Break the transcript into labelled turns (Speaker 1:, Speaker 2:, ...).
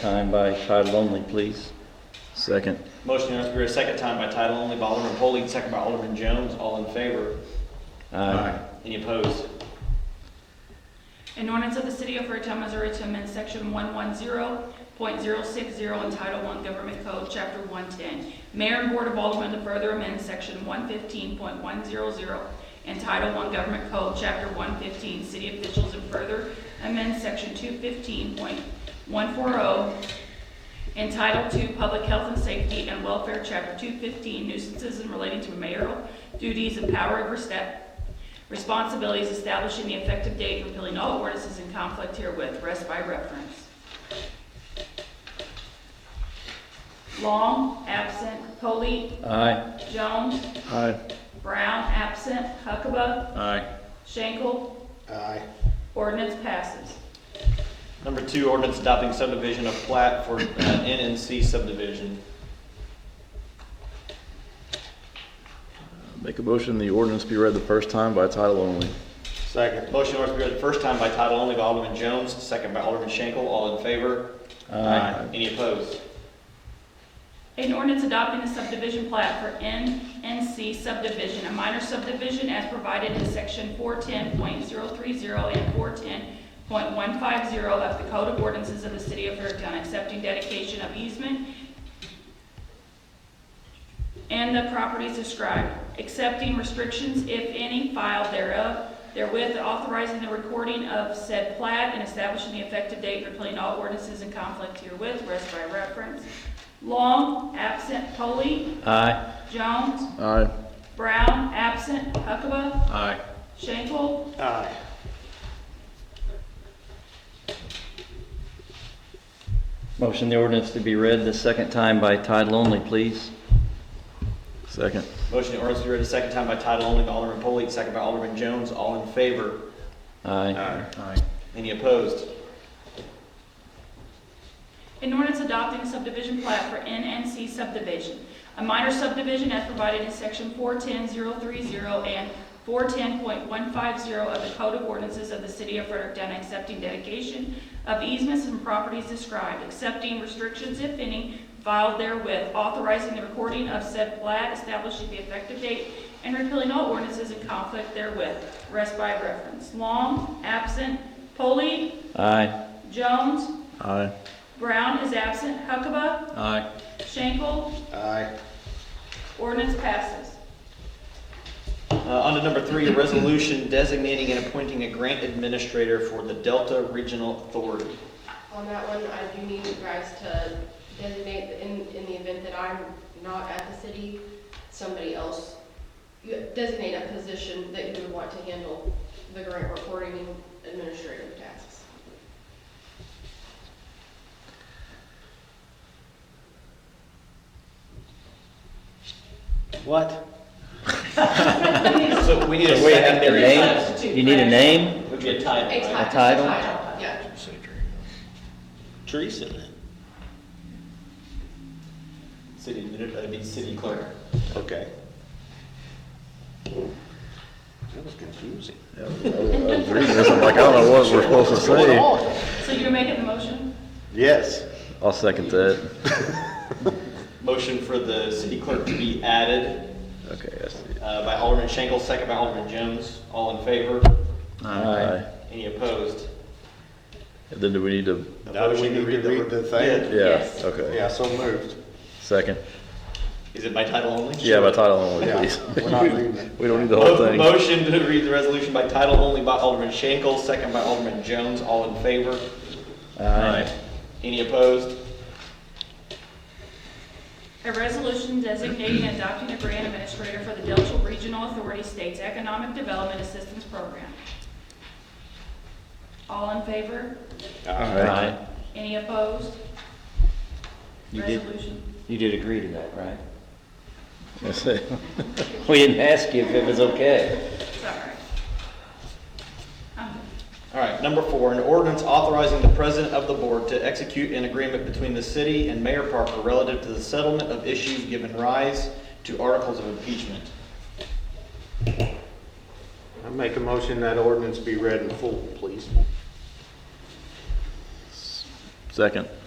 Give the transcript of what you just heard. Speaker 1: time by title only, please. Second.
Speaker 2: Motion to read a second time by title only by Alderman Polley, second by Alderman Jones. All in favor?
Speaker 1: Aye.
Speaker 2: Any opposed?
Speaker 3: An ordinance of the City of Fredericton, Missouri to amend Section 110.060 and Title I Government Code, Chapter 110. Mayor and Board of Aldermen to further amend Section 115.100 and Title I Government Code, Chapter 115, City Officials, and further amend Section 215.140 and Title II Public Health and Safety and Welfare, Chapter 215, Nuisances and Relating to Mayoral Duties and Power Overstep, Responsibilities Establishing the Effective Date, Repealing All Ordinances in Conflict Herewith, Rest by Reference. Long, absent, Polley,
Speaker 1: Aye.
Speaker 3: Jones,
Speaker 1: Aye.
Speaker 3: Brown, absent, Huckabee,
Speaker 1: Aye.
Speaker 3: Schenkel. Aye. Ordinance passes.
Speaker 2: Number two, ordinance adopting subdivision of plat for uh, NNC subdivision.
Speaker 4: Make a motion, the ordinance be read the first time by title only.
Speaker 2: Second. Motion to read the first time by title only by Alderman Jones, second by Alderman Schenkel. All in favor?
Speaker 1: Aye.
Speaker 2: Any opposed?
Speaker 3: An ordinance adopting the subdivision plat for NNC subdivision, a minor subdivision as provided in section 410.030 and 410.150 of the Code of Ordinances of the City of Fredericton, accepting dedication of easement and the properties described, accepting restrictions, if any, filed thereof, therewith authorizing the recording of said plat and establishing the effective date for repealing all ordinances in conflict herewith, rest by reference. Long, absent, Polley,
Speaker 1: Aye.
Speaker 3: Jones,
Speaker 4: Aye.
Speaker 3: Brown, absent, Huckabee,
Speaker 1: Aye.
Speaker 3: Schenkel.
Speaker 2: Aye.
Speaker 1: Motion the ordinance to be read the second time by title only, please.
Speaker 4: Second.
Speaker 2: Motion to ordinance be read a second time by title only by Alderman Polley, second by Alderman Jones. All in favor?
Speaker 1: Aye.
Speaker 2: Any opposed?
Speaker 3: An ordinance adopting a subdivision plat for NNC subdivision, a minor subdivision as provided in section 410.030 and 410.150 of the Code of Ordinances of the City of Fredericton, accepting dedication of easements and properties described, accepting restrictions, if any, filed therewith, authorizing the recording of said plat, establishing the effective date, and repealing all ordinances in conflict therewith, rest by reference. Long, absent, Polley,
Speaker 1: Aye.
Speaker 3: Jones,
Speaker 4: Aye.
Speaker 3: Brown is absent. Huckabee.
Speaker 1: Aye.
Speaker 3: Schenkel.
Speaker 2: Aye.
Speaker 3: Ordinance passes.
Speaker 2: Uh, On to number three, a resolution designating and appointing a grant administrator for the Delta Regional Authority.
Speaker 5: On that one, I do need you guys to designate, in, in the event that I'm not at the city, somebody else, you designate a position that you would want to handle the grant reporting and administrative tasks.
Speaker 2: What? So we need a
Speaker 1: So wait, a
Speaker 2: secondary.
Speaker 1: name? You need a name?
Speaker 2: Would be a title,
Speaker 5: A
Speaker 2: right?
Speaker 5: ti-
Speaker 1: A title?
Speaker 5: Yeah.
Speaker 2: Teresa then. City administrator, that'd be city clerk.
Speaker 6: Okay. That was confusing.
Speaker 4: I was reading this, I'm like, I don't know what we're supposed to say.
Speaker 3: So you're making the motion?
Speaker 6: Yes.
Speaker 4: I'll second that.
Speaker 2: Motion for the city clerk to be added
Speaker 4: Okay, I see.
Speaker 2: uh, by Alderman Schenkel, second by Alderman Jones. All in favor?
Speaker 4: Aye.
Speaker 2: Any opposed?
Speaker 4: And Then do we need to,
Speaker 6: Now we need to read the thing.
Speaker 4: yeah,
Speaker 3: Yes.
Speaker 4: okay.
Speaker 6: Yeah, so moved.
Speaker 4: Second.
Speaker 2: Is it by title only?
Speaker 4: Yeah, by title only,
Speaker 6: Yeah,
Speaker 4: please.
Speaker 6: We're not leaving it.
Speaker 4: We don't need the whole
Speaker 2: Mo-
Speaker 4: thing.
Speaker 2: Motion to read the resolution by title only by Alderman Schenkel, second by Alderman Jones. All in favor?
Speaker 1: Aye.
Speaker 2: Any opposed?
Speaker 3: A resolution designating and adopting a grant administrator for the Delta Regional Authority State's Economic Development Assistance Program. All in favor?
Speaker 1: Aye.
Speaker 3: Any opposed?
Speaker 1: You did.
Speaker 3: Resolution.
Speaker 1: You did agree to that, right?
Speaker 4: I see.
Speaker 1: We didn't ask you if it was okay.
Speaker 3: Sorry. Um,
Speaker 2: All right, number four, an ordinance authorizing the president of the board to execute an agreement between the city and Mayor Parker relative to the settlement of issues given rise to articles of impeachment.
Speaker 6: I make a motion that ordinance be read in full, please.
Speaker 4: Second.